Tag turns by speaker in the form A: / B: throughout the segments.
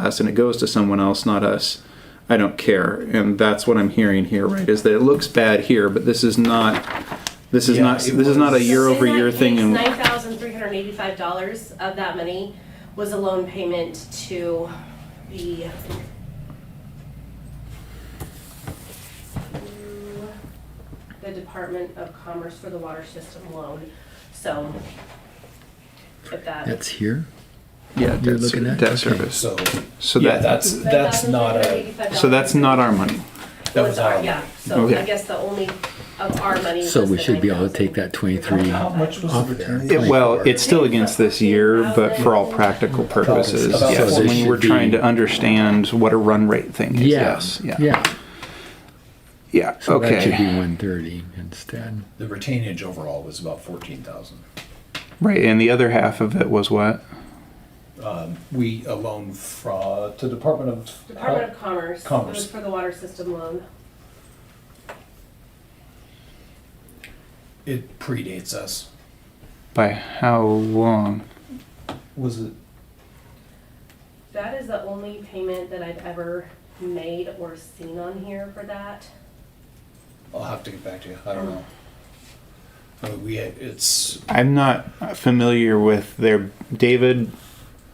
A: us and it goes to someone else, not us, I don't care. And that's what I'm hearing here, right? Is that it looks bad here, but this is not. This is
B: Yeah,
A: not.
B: it
A: This is not a
B: was-
A: year over year thing. And
C: Nine thousand three hundred eighty-five dollars of that money was a loan payment to the. The Department of Commerce for the Water System loan, so. If that,
D: That's here.
A: yeah,
D: You're
A: debt, ser-
D: looking at-
A: debt
D: okay.
A: service.
B: So,
A: So
B: yeah,
A: that-
B: that's, that's not a,
C: $9,385
A: So that's not our money.
B: that was our.
C: Yeah, so
A: Okay.
C: I guess the only of our money was
D: So we
C: the
D: should be able to
C: 9,000.
D: take that 23
B: How much was
D: Off
B: the
D: there.
B: return?
D: It-
A: It- well, it's still against this year, but for all practical purposes,
B: About
A: yes.
B: so this
A: When we're
D: should be-
A: trying to understand what a run rate thing is, yes,
D: Yeah.
A: yeah, yeah,
D: So that should be
A: okay.
D: 130 instead.
B: The retainage overall was about fourteen thousand.
A: Right, and the other half of it was what?
B: We, a loan fra, to Department of.
C: Department of Commerce, it
B: Commerce.
C: was for the water system loan.
B: It predates us.
A: By how long?
B: Was it?
C: That is the only payment that I've ever made or seen on here for that.
B: I'll have to get back to you. I don't know. I mean, we, had- it's,
A: I'm not familiar with their, David,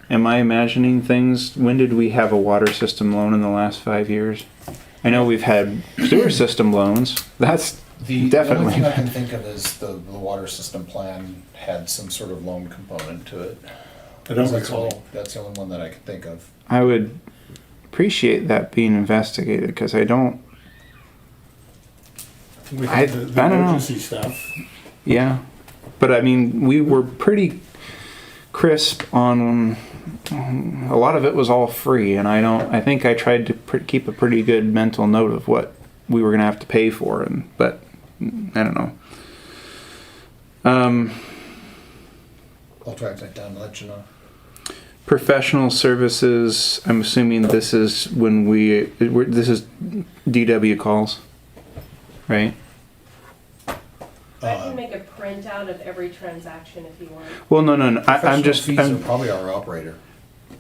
A: am I imagining things? When did we have a water system loan in the last five years? I know we've had sewer system loans, that's
B: the the only thing I
A: definitely,
B: can think of is the, the water system plan had some sort of loan component to it.
E: I don't
B: That's all-
E: recall.
B: That's the only one that I can think of.
A: I would appreciate that being investigated, because I don't,
E: We
A: I-
E: had the,
A: I
E: the
A: don't know.
E: emergency stuff.
A: Yeah, but I mean, we were pretty crisp on. on- A lot of it was all free, and I don't. I think I tried to pr- keep a pretty good mental note of what we were gonna have to pay for, and but I don't know. Um,
B: I'll track that down and let you know.
A: professional services. I'm assuming this is when we. We're, this is DW calls, right?
C: I
B: Uh-huh. Uh,
C: can make a printout of every transaction if you want.
A: Well, no, no, no. I, I'm
B: Professional
A: just.
B: Fees
A: I'm-
B: are probably our operator.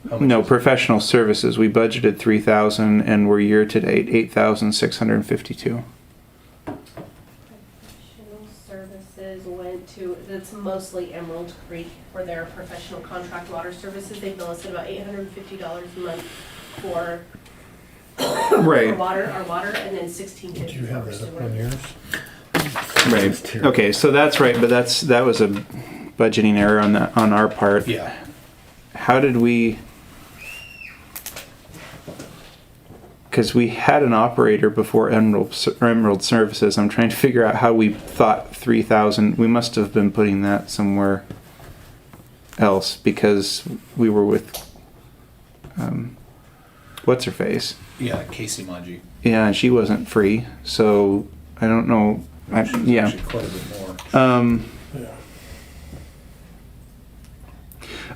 B: How much
A: No,
B: is it?
A: professional services. We budgeted three thousand, and we're year to date eight thousand six hundred and fifty-two.
C: Professional services went to, that's mostly Emerald Creek for their professional contract water services. They bill us at about eight hundred and fifty dollars a month for for
A: Right,
C: water, our water, and then sixteen fifty for sewer.
E: yours?
D: That's
A: right.
D: terrible.
A: Okay, so that's right, but that's that was a budgeting error on that on our part.
B: Yeah,
A: How did we? Because we had an operator before Emerald Ser- Emerald Services. I'm trying to figure out how we thought three thousand. We must have been putting that somewhere else because we were with. Um, what's her face?
B: yeah, Casey Manji.
A: Yeah, and she wasn't free, so I don't know. I,
B: She's
A: yeah.
B: actually Quite a bit more.
A: Um,
E: Yeah.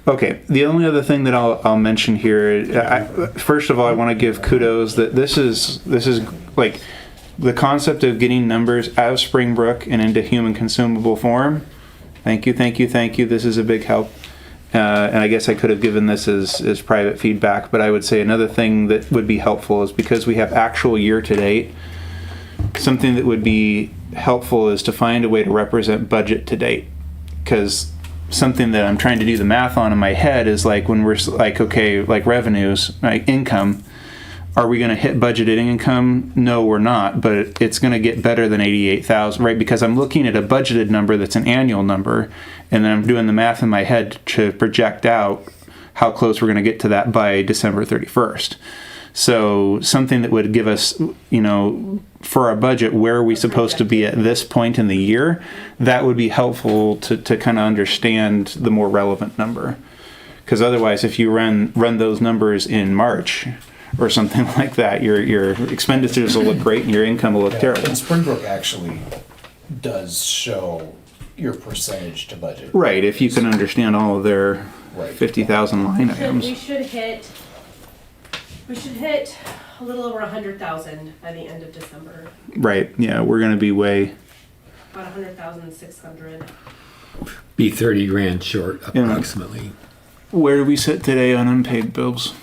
A: okay. The only other thing that I'll, I'll mention here, uh, I, first of all, I want to give kudos that this is this is like the concept of getting numbers out of Springbrook and into human consumable form. Thank you, thank you, thank you. This is a big help. Uh, and I guess I could have given this as, as private feedback, but I would say another thing that would be helpful is because we have actual year to date, something that would be helpful is to find a way to represent budget to date because something that i'm trying to do the math on in my head is like when we're s- like okay like revenues like income are we going to hit budgeted income no we're not but it's going to get better than 88000 right because i'm looking at a budgeted number that's an annual number and then i'm doing the math in my head to project out how close we're going to get to that by december 31st so something that would give us, you know, for our budget, where are we supposed to be at this point in the year? That would be helpful to, to kind of understand the more relevant number. Because otherwise, if you run run those numbers in March or something like that, your your expenditures will look great and your income will look
B: Yeah,
A: terrible.
B: And Springbrook actually does show your percentage to budget.
A: Right, if you can understand all of their
B: Right.
A: fifty thousand line
C: Should- We
A: items.
C: should hit, we should hit a little over a hundred thousand by the end of December,
A: Right, yeah, we're going to be way.
C: about a hundred thousand six hundred.
D: Be 30 grand short
A: Yeah.
D: approximately.
A: Where do we sit today on unpaid bills?